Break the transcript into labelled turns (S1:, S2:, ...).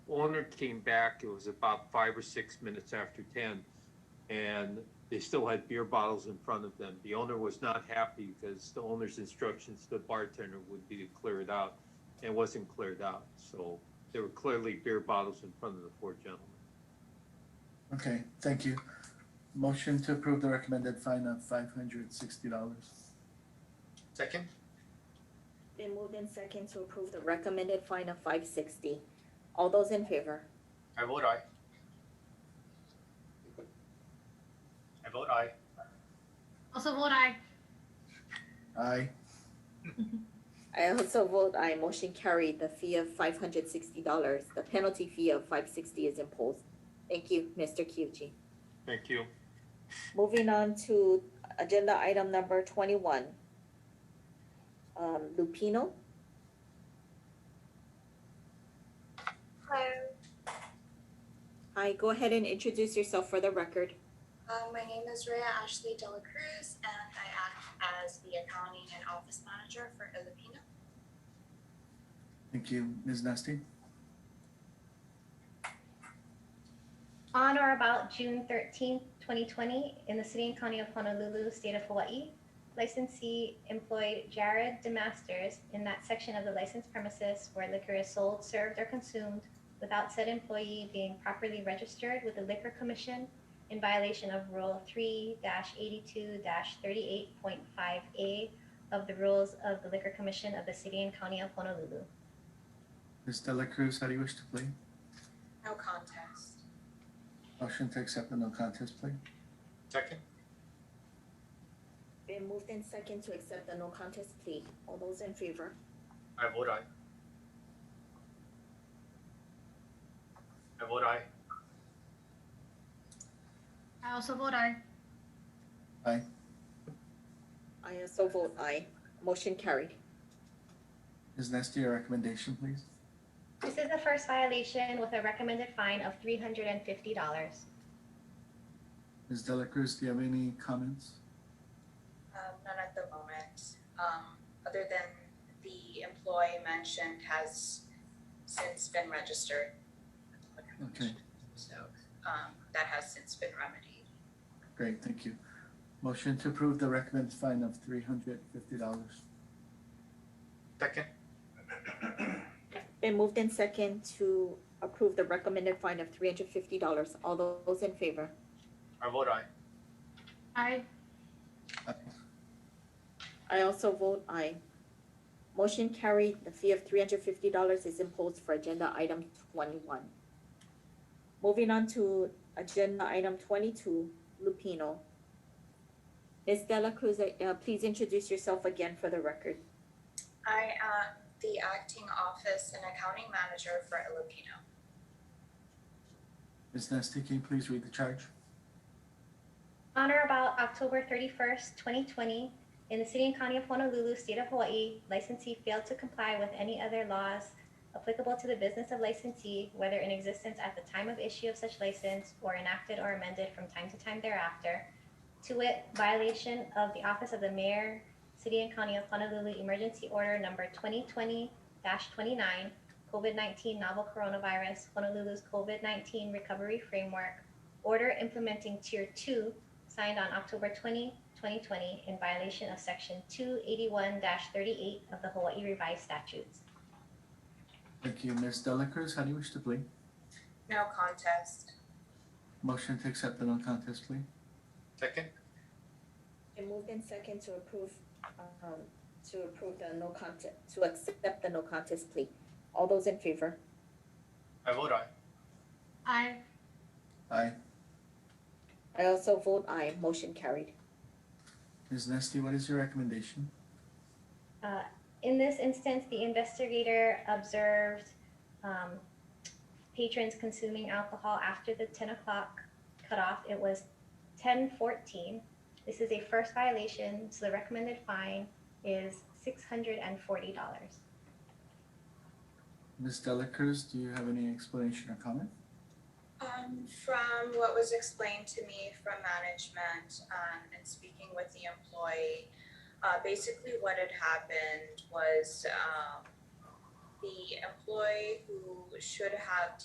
S1: owner came back, it was about five or six minutes after ten, and they still had beer bottles in front of them. The owner was not happy because the owner's instructions to the bartender would be to clear it out, and it wasn't cleared out. So there were clearly beer bottles in front of the four gentlemen.
S2: Okay, thank you. Motion to approve the recommended fine of five hundred sixty dollars.
S3: Second?
S4: Been moved in second to approve the recommended fine of five sixty. All those in favor?
S3: I vote aye. I vote aye.
S5: Also vote aye.
S2: Aye.
S4: I also vote aye, motion carried, the fee of five hundred sixty dollars, the penalty fee of five sixty is imposed. Thank you, Mr. Kyuchi.
S1: Thank you.
S4: Moving on to agenda item number twenty-one. Um, Lupino,
S6: Hello,
S4: hi, go ahead and introduce yourself for the record.
S6: um, my name is Rhea Ashley Dela Cruz, and I act as the accounting and office manager for Filipino.
S2: Thank you, Ms. Nasty.
S5: On or about June thirteenth, twenty twenty, in the city and county of Honolulu, state of Hawaii, licensee employed Jared DeMasters in that section of the licensed premises where liquor is sold, served, or consumed without said employee being properly registered with the Liquor Commission in violation of Rule three eighty-two thirty-eight point five A of the rules of the Liquor Commission of the city and county of Honolulu.
S2: Ms. Dela Cruz, how do you wish to play?
S6: No contest.
S2: Motion to accept the no contest plea.
S3: Second?
S4: Been moved in second to accept the no contest plea, all those in favor?
S3: I vote aye. I vote aye.
S5: I also vote aye.
S4: I also vote aye, motion carried.
S2: Ms. Nasty, your recommendation, please.
S5: This is the first violation with a recommended fine of three hundred and fifty dollars.
S2: Ms. Dela Cruz, do you have any comments?
S6: Um, none at the moment, um, other than the employee mentioned has since been registered.
S2: Okay.
S6: So, um, that has since been remedied.
S2: Great, thank you. Motion to approve the recommended fine of three hundred fifty dollars.
S3: Second?
S4: Been moved in second to approve the recommended fine of three hundred fifty dollars. All those in favor?
S3: I vote aye.
S5: Aye.
S4: I also vote aye. Motion carried, the fee of three hundred fifty dollars is imposed for agenda item twenty-one. Moving on to agenda item twenty-two, Lupino. Ms. Dela Cruz, uh, please introduce yourself again for the record.
S6: I am the acting office and accounting manager for Filipino.
S2: Ms. Nasty, can you please read the charge?
S5: On or about October thirty-first, twenty twenty, in the city and county of Honolulu, state of Hawaii, licensee failed to comply with any other laws applicable to the business of licensee, whether in existence at the time of issue of such license or enacted or amended from time to time thereafter, to wit, violation of the office of the mayor, city and county of Honolulu emergency order number twenty twenty twenty-nine, COVID nineteen novel coronavirus, Honolulu's COVID nineteen recovery framework, order implementing tier two signed on October 20, 2020, in violation of Section 281-38 of the Hawaii Revised Statutes.
S2: Thank you, Ms. Dela Cruz, how do you wish to plea?
S6: No contest.
S2: Motion to accept the no contest plea.
S3: Second?
S4: It moved in second to approve, um, to approve the no contest, to accept the no contest plea. All those in favor?
S3: I vote aye.
S5: Aye.
S2: Aye.
S4: I also vote aye, motion carried.
S2: Ms. Nasty, what is your recommendation?
S5: In this instance, the investigator observed um, patrons consuming alcohol after the 10 o'clock cutoff. It was 10:14. This is a first violation, so the recommended fine is $640.
S2: Ms. Dela Cruz, do you have any explanation or comment?
S6: Um, from what was explained to me from management, um, and speaking with the employee, uh, basically what had happened was, um, the employee who should have